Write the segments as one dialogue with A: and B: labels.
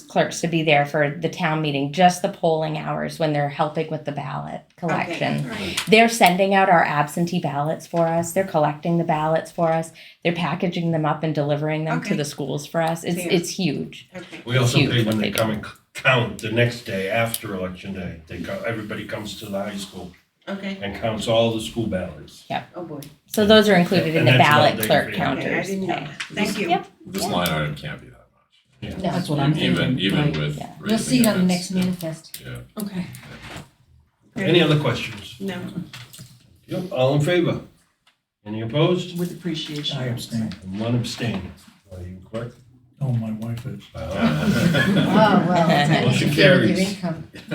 A: clerks to be there for the town meeting, just the polling hours when they're helping with the ballot collection. They're sending out our absentee ballots for us. They're collecting the ballots for us. They're packaging them up and delivering them to
B: Okay.
A: the schools for us. It's
B: Fair.
A: it's huge.
B: Okay.
C: We also
A: Huge
C: pay
A: what
C: when
A: they
C: they
A: do.
C: come and c- count the next day after election day. They co- everybody comes to the high school
B: Okay.
C: and counts all the school ballots.
B: Oh boy.
A: So those are included in
C: And
A: the
C: that's
A: ballot
C: another
A: clerk
C: thing for
B: Okay,
C: you.
B: I
A: counters.
B: didn't know.
A: pay.
B: that. Thank you.
A: Yep.
D: This line item can't be that much.
A: No.
E: That's what I'm
D: Even,
E: thinking.
D: even
E: like,
D: with.
A: yeah.
E: You'll see it
D: raising
E: on the next
D: it, it's-
E: manifest.
D: Yeah.
E: Okay.
C: Any other questions?
B: No.
C: Yep, all in favor? Any opposed?
E: With appreciation.
F: I abstain.
C: And One abstain. Are you correct?
F: Oh, my wife is.
E: Oh, well,
A: Motion
E: that's a
C: carries.
E: income.
F: It'd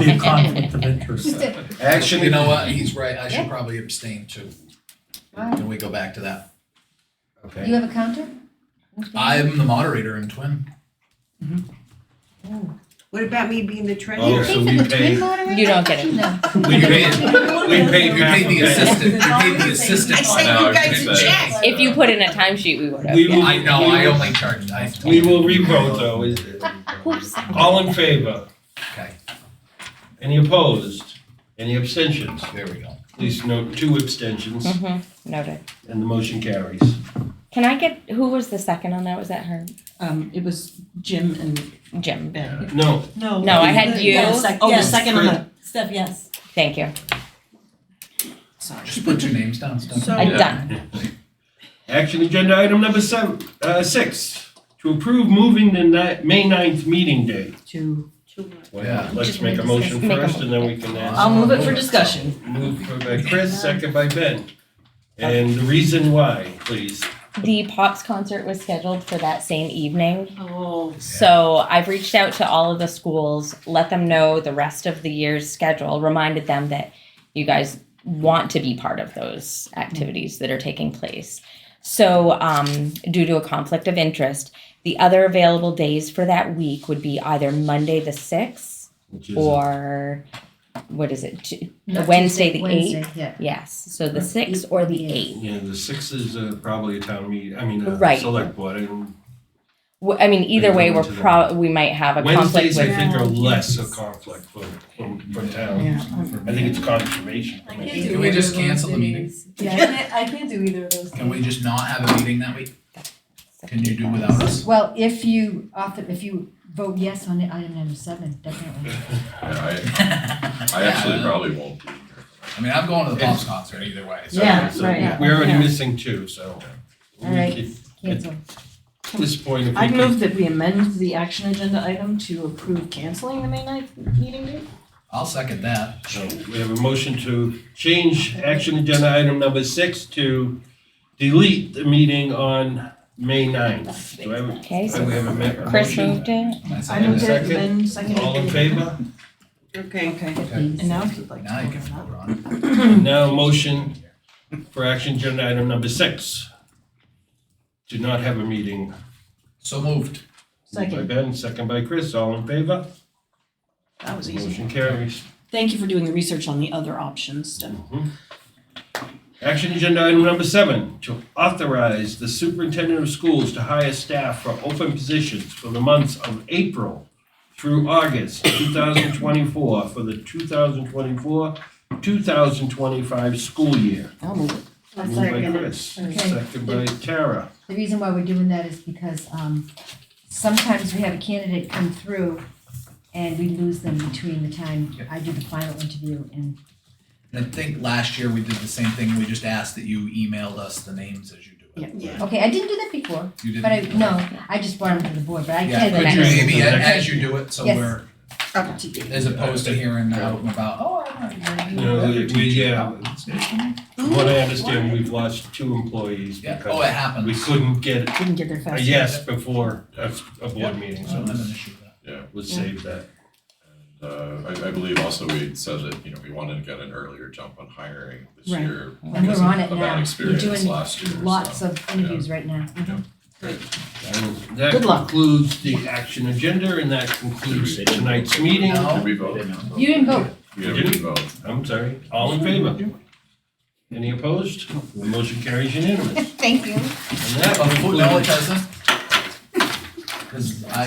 F: be a conflict of interest.
E: Just a-
G: Actually, you know what? He's right.
A: Yeah.
G: I should probably abstain too.
E: Wow.
G: Can we go back to that?
C: Okay.
E: You have a counter?
G: I'm the moderator in Twin.
B: What about me being the
C: Oh,
B: treasurer?
C: so
E: Pay
C: we
E: for the
C: pay-
E: twin moderator?
A: You don't get it.
E: No.
C: We paid, we paid
G: You
C: half
G: paid the
C: of that.
G: assistant. You paid the
B: I
G: assistant.
B: sent
D: No,
B: you
D: I
B: guys
D: think
B: a
D: that- uh,
B: check.
A: If you put in a timesheet, we would have.
C: We
A: yeah.
C: will-
G: I know, I only charged, I.
C: We will revote though. is it? All in favor?
G: Okay,
C: Any opposed? Any abstentions?
G: there we go.
C: Please note two abstentions
A: Mhm. Noted.
C: and the motion carries.
A: Can I get who was the second on that? Was that her?
H: Um, it was Jim and
A: Jim.
H: Ben.
C: No,
I: No.
A: No, I had you.
H: Yeah, sec- Oh, the
I: Yes.
H: second on the,
I: Steph, yes.
A: Thank you.
H: sorry.
G: Just put your names down, it's done.
B: So-
A: I'm
D: Yeah.
A: done.
C: Action agenda item number seven, uh, six, to approve moving the ni- May ninth meeting date.
H: To,
B: Too much.
C: Well,
G: Yeah.
C: let's
A: Just
C: make a
A: discuss-
C: motion
A: make a
C: first and then we can ask.
H: I'll move it for discussion.
C: Moved by Chris, second by Ben. And the reason why, please.
A: The Pops concert was scheduled for that same evening.
B: Oh.
A: So I've reached out to all of the schools, let them know the rest of the year's schedule, reminded them that you guys want to be part of those activities that are taking place. So, um, due to a conflict of interest, the other available days for that week would be either Monday the 6th
C: which is-
A: or what is it? Tu-
E: Not
A: Wednesday, the
E: Wednesday, Yeah.
A: Yes. So the 6th or the 8th.
C: Yeah, the sixth is uh, probably a town meeting, I mean, a
A: Right.
C: select board. and
A: Well, I mean, either way,
C: go
A: we're
C: to the-
A: pro, we might have a conflict
C: Wednesdays, I
A: with,
C: think, are less a conflict for, for, for
H: Yeah.
C: towns. I think it's confirmation.
I: I can't
G: Can
I: do
G: we
I: either
G: just
I: of those
G: cancel the meeting?
I: days. Yeah, I can't, I can't do either of those.
G: Can we
I: days.
G: just not have a meeting that week? Can you do without us?
E: Well, if you offer, if you vote yes on item number seven, definitely.
D: Yeah,
G: I
D: I, I actually probably won't be here.
G: mean, I'm going to the Pops concert either way, so.
E: Yeah,
C: So
H: right.
C: We're already
H: Yeah.
C: missing two, so. we
E: All right.
C: could-
E: Cancel.
C: At this point, if we
H: I'd
C: could-
H: move that we amend the action agenda item to approve canceling the May ninth meeting date.
G: I'll second that.
C: So we have a motion to change action agenda item number six to delete the meeting on May ninth. Do I have,
A: okay,
C: do
A: so
C: we have a ma- a
A: Chris
C: motion?
A: moved it.
H: I moved it,
C: Second.
H: Ben seconded it.
C: All in favor?
B: Okay.
H: Okay,
G: Okay.
H: and now if you'd like to
G: Now you can
H: vote on
G: vote on it.
C: Now motion for action agenda item number six. Do not have a meeting.
G: So moved.
C: Moved
H: Second.
C: By Ben, second by Chris, all in favor?
H: that, that was easy.
C: Motion carries.
H: Thank you for doing the research on the other options, Steph.
C: Mm-hmm. Action agenda item number seven, to authorize the superintendent of schools to hire staff for open positions for the months of April through August two thousand twenty-four for the two thousand twenty-four, two thousand twenty-five school year.
H: I'll move it.
B: I'll
C: Moved by
B: second it.
C: Chris,
E: Okay.
C: second by Tara.
E: The reason why we're doing that is because um sometimes we have a candidate come through and we lose them between the time I do the final interview and
G: And I think last year we did the same thing. We just asked that you emailed us the names as you do it.
B: Yeah.
E: okay, I didn't do that before,
G: You didn't?
E: but I no, I just brought them to the board, but I
G: Yeah,
E: can do
G: could
E: that.
G: you maybe
C: Yeah.
G: a- as you do it, so
E: Yes.
G: we're,
B: Up to you.
G: as opposed to hearing out and about, oh, I'm
C: No,
G: not.
C: we- we- yeah. From what I understand, we've lost two employees
G: Yeah, oh, it
C: because
G: happens.
C: we couldn't get
H: Didn't get there fast.
C: a
G: Uh,
H: enough.
C: yes before a, a board
G: Yeah.
C: meeting,
G: I don't
C: so
G: have an issue with that.
C: let's save that.
D: Uh, I, I believe also we said that, you know, we wanted to get an earlier jump on hiring this
H: Right.
D: year.
E: And we're on
D: because
E: it
D: of a
E: now.
D: bad
E: We're
D: experience
E: doing
D: last year, so.
E: lots of interviews right now.
C: And That
H: Good luck.
C: concludes the action agenda and that concludes tonight's meeting.
G: No.
D: Did we vote?
E: You didn't vote.
D: Yeah, we did vote.
C: I'm sorry, all in favor? Any opposed? The motion carries unanimous.
E: Thank you.
C: And that
G: But Oh, no, it
C: concludes,
G: doesn't. because I,